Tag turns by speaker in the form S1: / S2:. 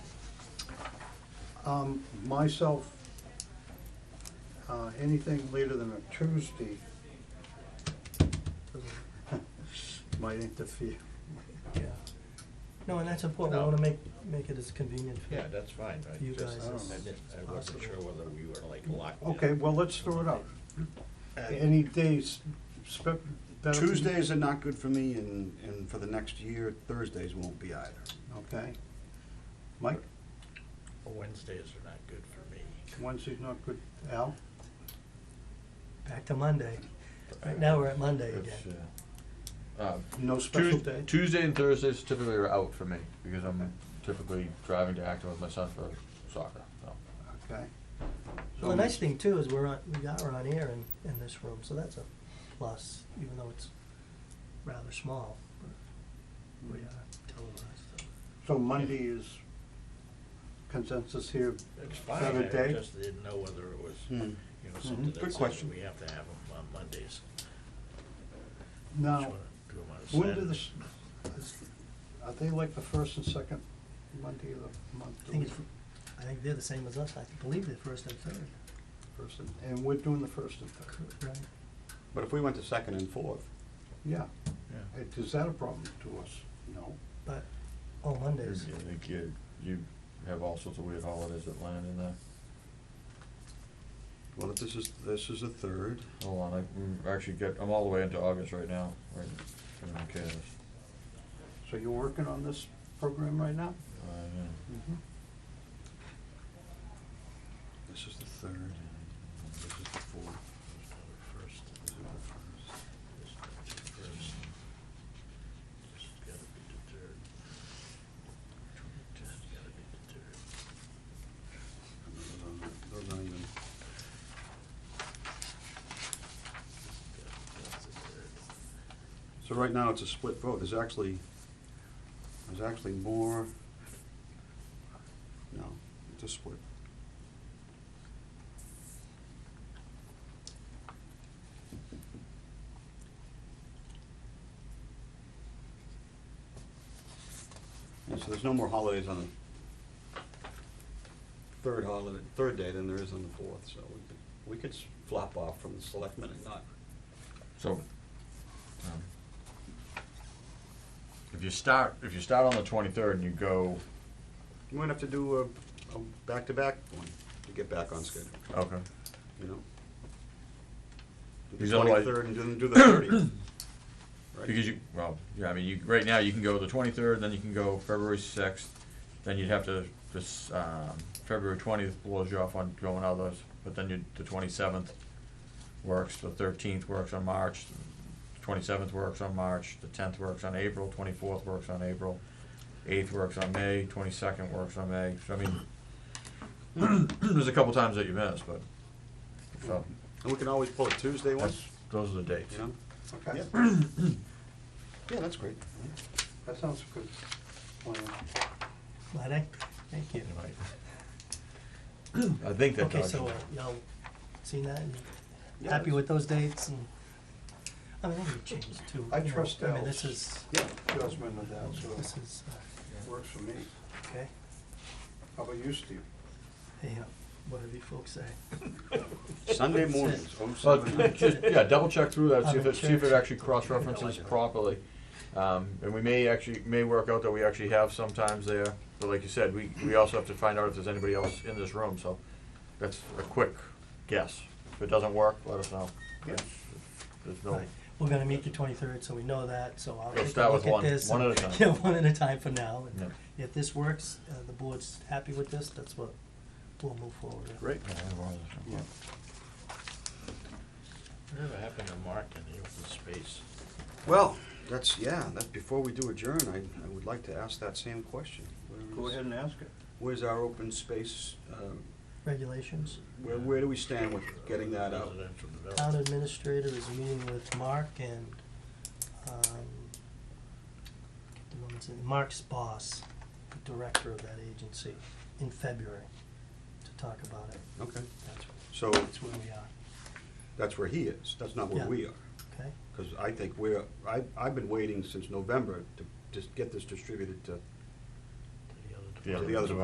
S1: Um, myself, uh, anything later than a Tuesday might interfere.
S2: Yeah. No, and that's important, we
S3: No.
S2: wanna make, make it as convenient for.
S3: Yeah, that's fine, I
S2: You
S3: just,
S2: guys,
S3: I
S1: it's
S3: didn't- I
S2: possible.
S3: wasn't sure whether we were like locked in.
S1: Okay, well, let's throw it out.
S4: And
S1: Any days, spe- better for you?
S4: Tuesdays are not good for me, and, and for the next year, Thursdays won't be either.
S1: Okay. Mike,
S3: Wednesdays are not good for me.
S1: Wednesday's not good. Al?
S2: Back to Monday. Right now, we're at Monday
S5: It's,
S2: again.
S5: uh, uh,
S1: No special
S5: Tues-
S1: day?
S5: Tuesday and Thursdays typically are out for me because I'm typically driving to Acton with my son for soccer. So.
S1: Okay.
S2: Well, the nice thing too is we're on, we are on air in, in this room, so that's a plus, even though it's rather small. but We are televised, so.
S1: So Monday is consensus here.
S3: It's
S1: that
S3: fine,
S1: a
S3: I
S1: day?
S3: just didn't know whether it was,
S4: Hmm.
S3: you know, something
S1: Good
S3: that says
S4: question.
S3: we have to have them on Mondays.
S1: Now,
S3: Just wanna do 'em on a
S1: when do
S3: Saturday.
S1: the, s- is- are they like the first and second Monday of the month?
S2: I think it's, I think they're the same as us, I believe they're first and third.
S1: First and- And we're doing the first and third.
S2: Right.
S4: But if we went to second and fourth,
S1: Yeah.
S3: Yeah.
S1: It- Is that a problem to us? No.
S2: But, oh, Mondays,
S5: You- you- You, you have all sorts of weird holidays that land in there.
S4: well, if this is, this is a third,
S5: Hold on, I mm, actually get, I'm all the way into August right now. Right, I don't care.
S1: So you're working on this program right now?
S5: Uh, yeah.
S2: Mm-hmm.
S4: this is the third, this is the fourth,
S3: First,
S4: this is the first.
S3: this first. This has gotta be the third. This has gotta be the third.
S4: and those aren't- Those aren't even,
S3: Yeah, that's the third.
S4: so right now, it's a split vote, there's actually, there's actually more, no, it's a split. And so there's no more holidays on the third holiday, third day than there is on the fourth, so we could, we could s- flop off from the selectmen and not.
S5: So, um, if you start, if you start on the twenty-third and you go,
S4: You might have to do a, a back-to-back one to get back on schedule,
S5: okay,
S4: you know? Do
S5: Because
S4: the
S5: otherwise-
S4: twenty-third and then do the thirtieth.
S5: because you, well, yeah, I mean, you, right now, you can go the twenty-third, then you can go February sixth, then you'd have to, this, um, February twentieth blows you off on going others, but then you, the twenty-seventh works, the thirteenth works on March, twenty-seventh works on March, the tenth works on April, twenty-fourth works on April, eighth works on May, twenty-second works on May, so I mean, there's a couple times that you miss, but, so,
S4: And we can always pull a Tuesday one,
S5: that's, those are the dates.
S4: you know?
S1: Okay.
S4: Yeah, that's great.
S1: That sounds good.
S4: Oh,
S1: Plan.
S2: Monday, thank you.
S5: I think that
S2: Okay,
S5: does.
S2: so, uh, y'all seen that, and
S4: Yeah,
S2: happy
S4: that's-
S2: with those dates, and, I mean, they changed too.
S1: I
S2: you know,
S1: trust
S2: I mean, this
S1: Al's.
S2: is,
S4: Yeah,
S1: Judgment of that,
S2: this
S1: so
S2: is, uh,
S1: works for me.
S2: okay,
S1: How about you, Steve?
S2: hey, uh, whatever you folks say.
S4: Sunday mornings, oh,
S5: Well,
S4: seven, nine.
S5: just, yeah, double check through that, see if
S2: Double
S5: it, see if
S2: check.
S5: it actually cross-references properly. Um, and we may actually, may work out that we actually have sometimes there, but like you said, we, we also have to find out if there's anybody else in this room, so that's a quick guess. If it doesn't work, let us know.
S1: Yeah.
S5: There's no,
S2: Right. We're gonna meet the twenty-third, so we know that, so I'll
S5: Let's
S2: take a
S5: start with
S2: look at
S5: one-
S2: this.
S5: one
S2: and-
S5: at a time.
S2: Yeah, one at a time for now, and
S5: Yeah.
S2: if this works, uh, the board's happy with this, that's what we'll move forward with.
S4: Great.
S1: Yeah.
S3: Whatever happened to Mark in the open space?
S4: Well, that's, yeah, that's, before we do adjourn, I, I would like to ask that same question. Where
S1: Go
S4: is-
S1: ahead and ask it.
S4: Where's our open space, um,
S2: Regulations,
S4: where, where do we stand with getting that out?
S3: Residential
S2: town
S3: development.
S2: administrator is meeting with Mark and, um, get the woman's name, Mark's boss, the director of that agency, in February, to talk about it,
S4: Okay,
S2: that's,
S4: so
S2: that's where we are,
S4: that's where he is, that's not where
S2: Yeah.
S4: we are.
S2: okay?
S4: Because I think we're, I, I've been waiting since November to just get this distributed to
S3: To the other
S5: Yeah.
S4: to the other